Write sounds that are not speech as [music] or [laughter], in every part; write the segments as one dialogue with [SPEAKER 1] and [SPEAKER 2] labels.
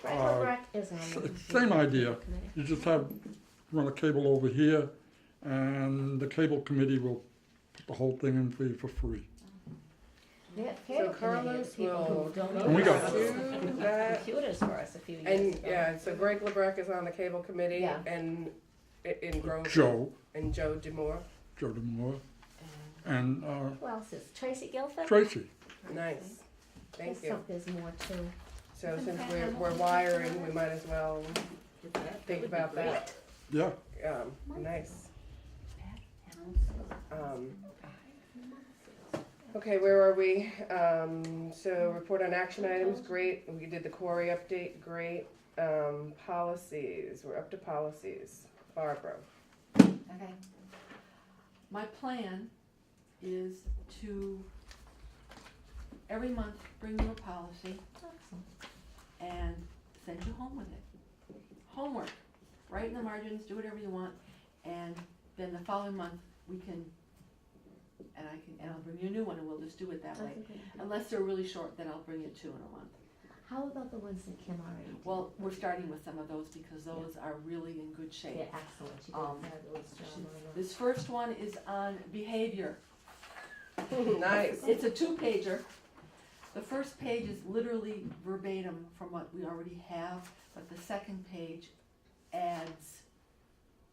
[SPEAKER 1] Franklin
[SPEAKER 2] Uh,
[SPEAKER 1] Rock is on
[SPEAKER 2] S-
[SPEAKER 1] the
[SPEAKER 2] Same idea.
[SPEAKER 1] committee.
[SPEAKER 2] You just have, run a cable over here, and the cable committee will put the whole thing in for you for free.
[SPEAKER 1] That
[SPEAKER 3] So
[SPEAKER 1] cable committee is
[SPEAKER 3] Carlos
[SPEAKER 1] people
[SPEAKER 3] will
[SPEAKER 1] who don't.
[SPEAKER 2] And we got-
[SPEAKER 1] have
[SPEAKER 3] do that.
[SPEAKER 1] Computers for us a few years
[SPEAKER 3] And,
[SPEAKER 1] ago.
[SPEAKER 3] yeah, so Greg LeBrecq is on the cable committee
[SPEAKER 1] Yeah.
[SPEAKER 3] and, in Grove.
[SPEAKER 2] Joe,
[SPEAKER 3] And Joe Demore.
[SPEAKER 2] Joe DeMora, and uh,
[SPEAKER 1] Who else is, Tracy Guilford?
[SPEAKER 2] Tracy.
[SPEAKER 3] Nice. Thank
[SPEAKER 1] There's
[SPEAKER 3] you.
[SPEAKER 1] some- There's more too.
[SPEAKER 3] So since we're, we're wiring, we might as well think about that.
[SPEAKER 2] Yeah,
[SPEAKER 3] Um, nice. Um, okay, where are we? Um, so report on action items, great. We did the quarry update, great. Um, policies, we're up to policies. Barbara.
[SPEAKER 4] Okay. My plan is to every month bring you a policy and send you home with it. Homework, write in the margins, do whatever you want, and then the following month, we can, and I can, and I'll bring you a new one and we'll just do it that way. Unless they're really short, then I'll bring you two in a month.
[SPEAKER 1] How about the ones that Kim already did?
[SPEAKER 4] Well, we're starting with some of those because those are really in good shape.
[SPEAKER 1] They're excellent. She did a
[SPEAKER 4] Um,
[SPEAKER 1] fabulous job
[SPEAKER 4] she-
[SPEAKER 1] on them.
[SPEAKER 4] This first one is on behavior.
[SPEAKER 3] Nice.
[SPEAKER 4] It's a two pager. The first page is literally verbatim from what we already have, but the second page adds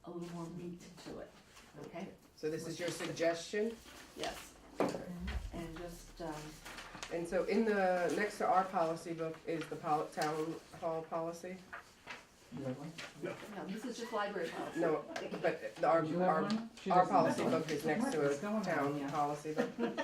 [SPEAKER 4] a little more meat to it, okay?
[SPEAKER 3] So this is your suggestion?
[SPEAKER 4] Yes. And just, um,
[SPEAKER 3] And so in the, next to our policy book is the pol- town hall policy?
[SPEAKER 4] no, this is just library policy.
[SPEAKER 3] No, but the- our, our, our policy book is next to a town policy
[SPEAKER 5] [laughs]
[SPEAKER 3] book.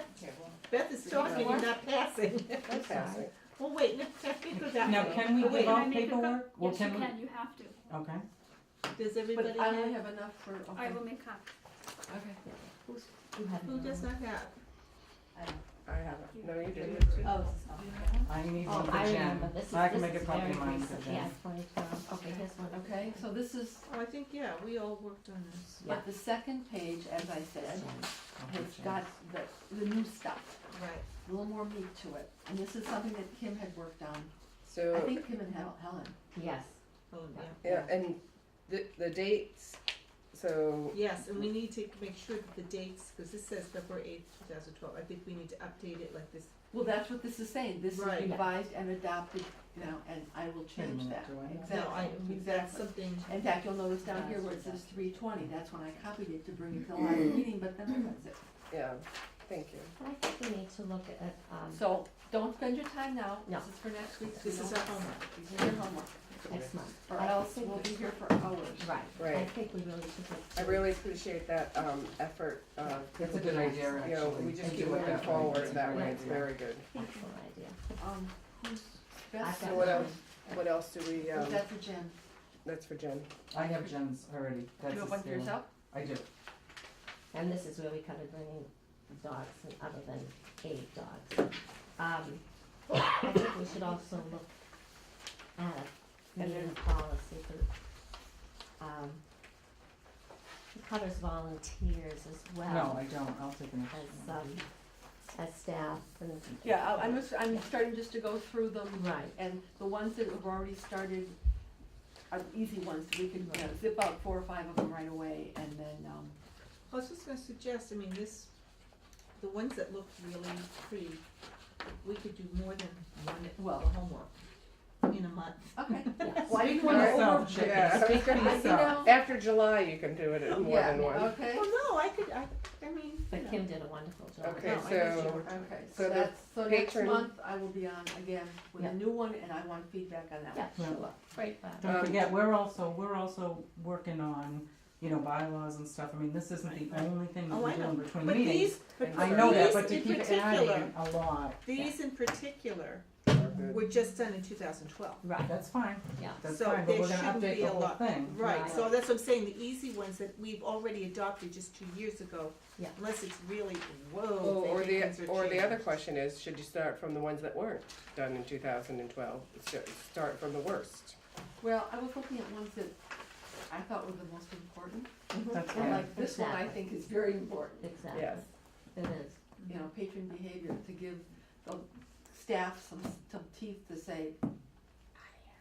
[SPEAKER 6] Beth is talking and not passing.
[SPEAKER 3] That's passing.
[SPEAKER 6] [laughs] Well, wait, let's check into that.
[SPEAKER 5] Now,
[SPEAKER 6] one.
[SPEAKER 5] can we
[SPEAKER 6] Oh, wait,
[SPEAKER 5] give
[SPEAKER 6] I
[SPEAKER 5] out
[SPEAKER 6] make a co-
[SPEAKER 5] paperwork? Well,
[SPEAKER 7] Yes, you
[SPEAKER 5] we-
[SPEAKER 7] can, you have to.
[SPEAKER 5] Okay.
[SPEAKER 6] Does everybody
[SPEAKER 4] But I only
[SPEAKER 6] have,
[SPEAKER 4] have enough for, okay,
[SPEAKER 7] I
[SPEAKER 4] okay.
[SPEAKER 7] will make copies.
[SPEAKER 1] You have
[SPEAKER 6] who does not have?
[SPEAKER 3] I haven't, no, you didn't.
[SPEAKER 1] Oh,
[SPEAKER 5] I need
[SPEAKER 1] oh,
[SPEAKER 5] one for
[SPEAKER 1] I
[SPEAKER 5] Jen.
[SPEAKER 1] remember. This is,
[SPEAKER 5] So I can
[SPEAKER 1] this
[SPEAKER 5] make a
[SPEAKER 1] is
[SPEAKER 5] copy
[SPEAKER 1] very
[SPEAKER 5] of mine
[SPEAKER 1] recent.
[SPEAKER 5] for
[SPEAKER 1] Yeah,
[SPEAKER 5] Jen.
[SPEAKER 1] twenty twelve. Okay, here's one.
[SPEAKER 4] Okay, so this is,
[SPEAKER 6] Oh, I think, yeah, we all worked on this.
[SPEAKER 1] Yeah.
[SPEAKER 4] but the second page, as I said,
[SPEAKER 5] I'll
[SPEAKER 4] has
[SPEAKER 5] put Jen.
[SPEAKER 4] got the, the new stuff,
[SPEAKER 6] Right.
[SPEAKER 4] a little more meat to it. And this is something that Kim had worked on. I
[SPEAKER 3] So,
[SPEAKER 4] think Kim and Hel- Helen.
[SPEAKER 1] Yes.
[SPEAKER 6] Oh, yeah.
[SPEAKER 3] yeah, and the, the dates, so,
[SPEAKER 6] Yes, and we need to make sure that the dates, because this says February eighth, two thousand twelve, I think we need to update it like this.
[SPEAKER 4] Well, that's what this is saying, this is
[SPEAKER 6] Right.
[SPEAKER 4] revised and adopted now, and I will change
[SPEAKER 5] minute,
[SPEAKER 4] that.
[SPEAKER 5] do I? No,
[SPEAKER 6] No, I,
[SPEAKER 4] Exactly,
[SPEAKER 6] that's
[SPEAKER 4] exactly.
[SPEAKER 6] something,
[SPEAKER 4] In fact, you'll notice down here where it says three twenty, that's when I copied it to bring it to the live
[SPEAKER 6] Mm-hmm.
[SPEAKER 4] meeting, but then that's it.
[SPEAKER 3] yeah, thank you.
[SPEAKER 1] I think we need to look at, um,
[SPEAKER 4] So, don't spend your time now,
[SPEAKER 1] No.
[SPEAKER 4] this is for next week, so
[SPEAKER 6] this is
[SPEAKER 4] don't,
[SPEAKER 6] our homework.
[SPEAKER 4] these are your homework,
[SPEAKER 1] next month.
[SPEAKER 4] or
[SPEAKER 1] I
[SPEAKER 4] else
[SPEAKER 1] think
[SPEAKER 4] we'll
[SPEAKER 1] we-
[SPEAKER 4] be here for hours.
[SPEAKER 1] Right. I
[SPEAKER 3] Right.
[SPEAKER 1] think we really should. look
[SPEAKER 3] I
[SPEAKER 1] to-
[SPEAKER 3] really appreciate that, um, effort, uh,
[SPEAKER 5] That's a good idea, actually.
[SPEAKER 3] you know, we just
[SPEAKER 5] Thank you
[SPEAKER 3] keep
[SPEAKER 5] for
[SPEAKER 3] moving
[SPEAKER 5] that.
[SPEAKER 3] forward
[SPEAKER 5] That's a
[SPEAKER 3] that
[SPEAKER 5] great
[SPEAKER 3] way, it's
[SPEAKER 5] idea.
[SPEAKER 3] very good.
[SPEAKER 1] Excellent idea.
[SPEAKER 4] Um, who's
[SPEAKER 1] I've
[SPEAKER 4] best?
[SPEAKER 1] got
[SPEAKER 3] So what
[SPEAKER 1] mine.
[SPEAKER 3] else, what else do we, um,
[SPEAKER 4] Is that for Jen?
[SPEAKER 3] that's for Jen.
[SPEAKER 5] I have Jen's already.
[SPEAKER 4] Do
[SPEAKER 5] That's
[SPEAKER 4] you
[SPEAKER 5] a
[SPEAKER 4] have one for
[SPEAKER 5] scale.
[SPEAKER 4] yourself?
[SPEAKER 5] I do.
[SPEAKER 1] And this is where we kind of bring in dogs and other than eight dogs. Um, I think we should also look at a
[SPEAKER 4] And
[SPEAKER 1] meeting policy for, um, it covers volunteers as
[SPEAKER 5] No,
[SPEAKER 1] well
[SPEAKER 5] I don't. I'll take an
[SPEAKER 1] as,
[SPEAKER 5] extra.
[SPEAKER 1] um, as staff
[SPEAKER 3] [laughs]
[SPEAKER 1] and.
[SPEAKER 4] Yeah, I- I'm, just- I'm starting just to go through them.
[SPEAKER 1] Right.
[SPEAKER 4] And the ones that have already started are the easy ones, we can, you know, zip out four or five of them right away, and then, um,
[SPEAKER 6] I was just gonna suggest, I mean, this, the ones that look really pretty, we could do more than one
[SPEAKER 4] Well-
[SPEAKER 6] for homework in a month.
[SPEAKER 4] okay. [laughs]
[SPEAKER 1] Yes.
[SPEAKER 4] Why do you
[SPEAKER 6] Speak for
[SPEAKER 4] want to
[SPEAKER 6] yourself,
[SPEAKER 4] overdo
[SPEAKER 6] Jen.
[SPEAKER 4] it?
[SPEAKER 3] Yeah, I was
[SPEAKER 4] You
[SPEAKER 3] gonna say,
[SPEAKER 4] know?
[SPEAKER 3] after July, you can do it in more
[SPEAKER 4] Yeah,
[SPEAKER 3] than one.
[SPEAKER 4] Okay,
[SPEAKER 6] Well, no, I could, I, I mean, you
[SPEAKER 1] But
[SPEAKER 6] know.
[SPEAKER 1] Kim did a wonderful job.
[SPEAKER 3] Okay,
[SPEAKER 4] No, I guess
[SPEAKER 3] so-
[SPEAKER 4] you were- okay, so
[SPEAKER 3] so the
[SPEAKER 4] that's, so next
[SPEAKER 3] patron-
[SPEAKER 4] month I will be on again with
[SPEAKER 1] Yeah.
[SPEAKER 4] a new one, and I want feedback on that one.
[SPEAKER 1] Yeah,
[SPEAKER 5] Yeah.
[SPEAKER 1] sure. Great. uh,
[SPEAKER 5] Don't
[SPEAKER 3] Um,
[SPEAKER 5] forget, we're also, we're also working on, you know, bylaws and stuff. I mean, this isn't the only thing that
[SPEAKER 6] Oh,
[SPEAKER 5] we
[SPEAKER 6] I
[SPEAKER 5] do in
[SPEAKER 6] know,
[SPEAKER 5] between
[SPEAKER 6] but
[SPEAKER 5] meetings.
[SPEAKER 6] these, but
[SPEAKER 5] I know that,
[SPEAKER 6] these
[SPEAKER 5] but to
[SPEAKER 6] in
[SPEAKER 5] keep
[SPEAKER 6] particular-
[SPEAKER 5] adding a lot,
[SPEAKER 6] These in particular
[SPEAKER 3] We're good.
[SPEAKER 6] were just done in two thousand twelve.
[SPEAKER 1] Right,
[SPEAKER 5] that's fine.
[SPEAKER 1] yeah.
[SPEAKER 5] That's
[SPEAKER 6] So
[SPEAKER 5] fine, but
[SPEAKER 6] there
[SPEAKER 5] we're gonna
[SPEAKER 6] shouldn't
[SPEAKER 5] update
[SPEAKER 6] be
[SPEAKER 5] the
[SPEAKER 6] a
[SPEAKER 5] whole
[SPEAKER 6] lot.
[SPEAKER 5] thing.
[SPEAKER 6] Right, so that's what I'm saying, the easy ones that we've already adopted just two years ago.
[SPEAKER 1] Yeah.
[SPEAKER 6] Unless it's really,
[SPEAKER 3] Well,
[SPEAKER 6] whoa,
[SPEAKER 3] or
[SPEAKER 6] they
[SPEAKER 3] the,
[SPEAKER 6] think things are
[SPEAKER 3] or the other
[SPEAKER 6] changed.
[SPEAKER 3] question is, should you start from the ones that weren't done in two thousand and twelve? Start from the worst.
[SPEAKER 4] Well, I was looking at ones that I thought were the most important,
[SPEAKER 5] That's
[SPEAKER 4] and
[SPEAKER 5] fine.
[SPEAKER 4] like this one I
[SPEAKER 1] Exactly.
[SPEAKER 4] think is very important.
[SPEAKER 1] Exactly.
[SPEAKER 3] Yes,
[SPEAKER 1] It is.
[SPEAKER 4] you know, patron behavior to give the staff some, some teeth to say,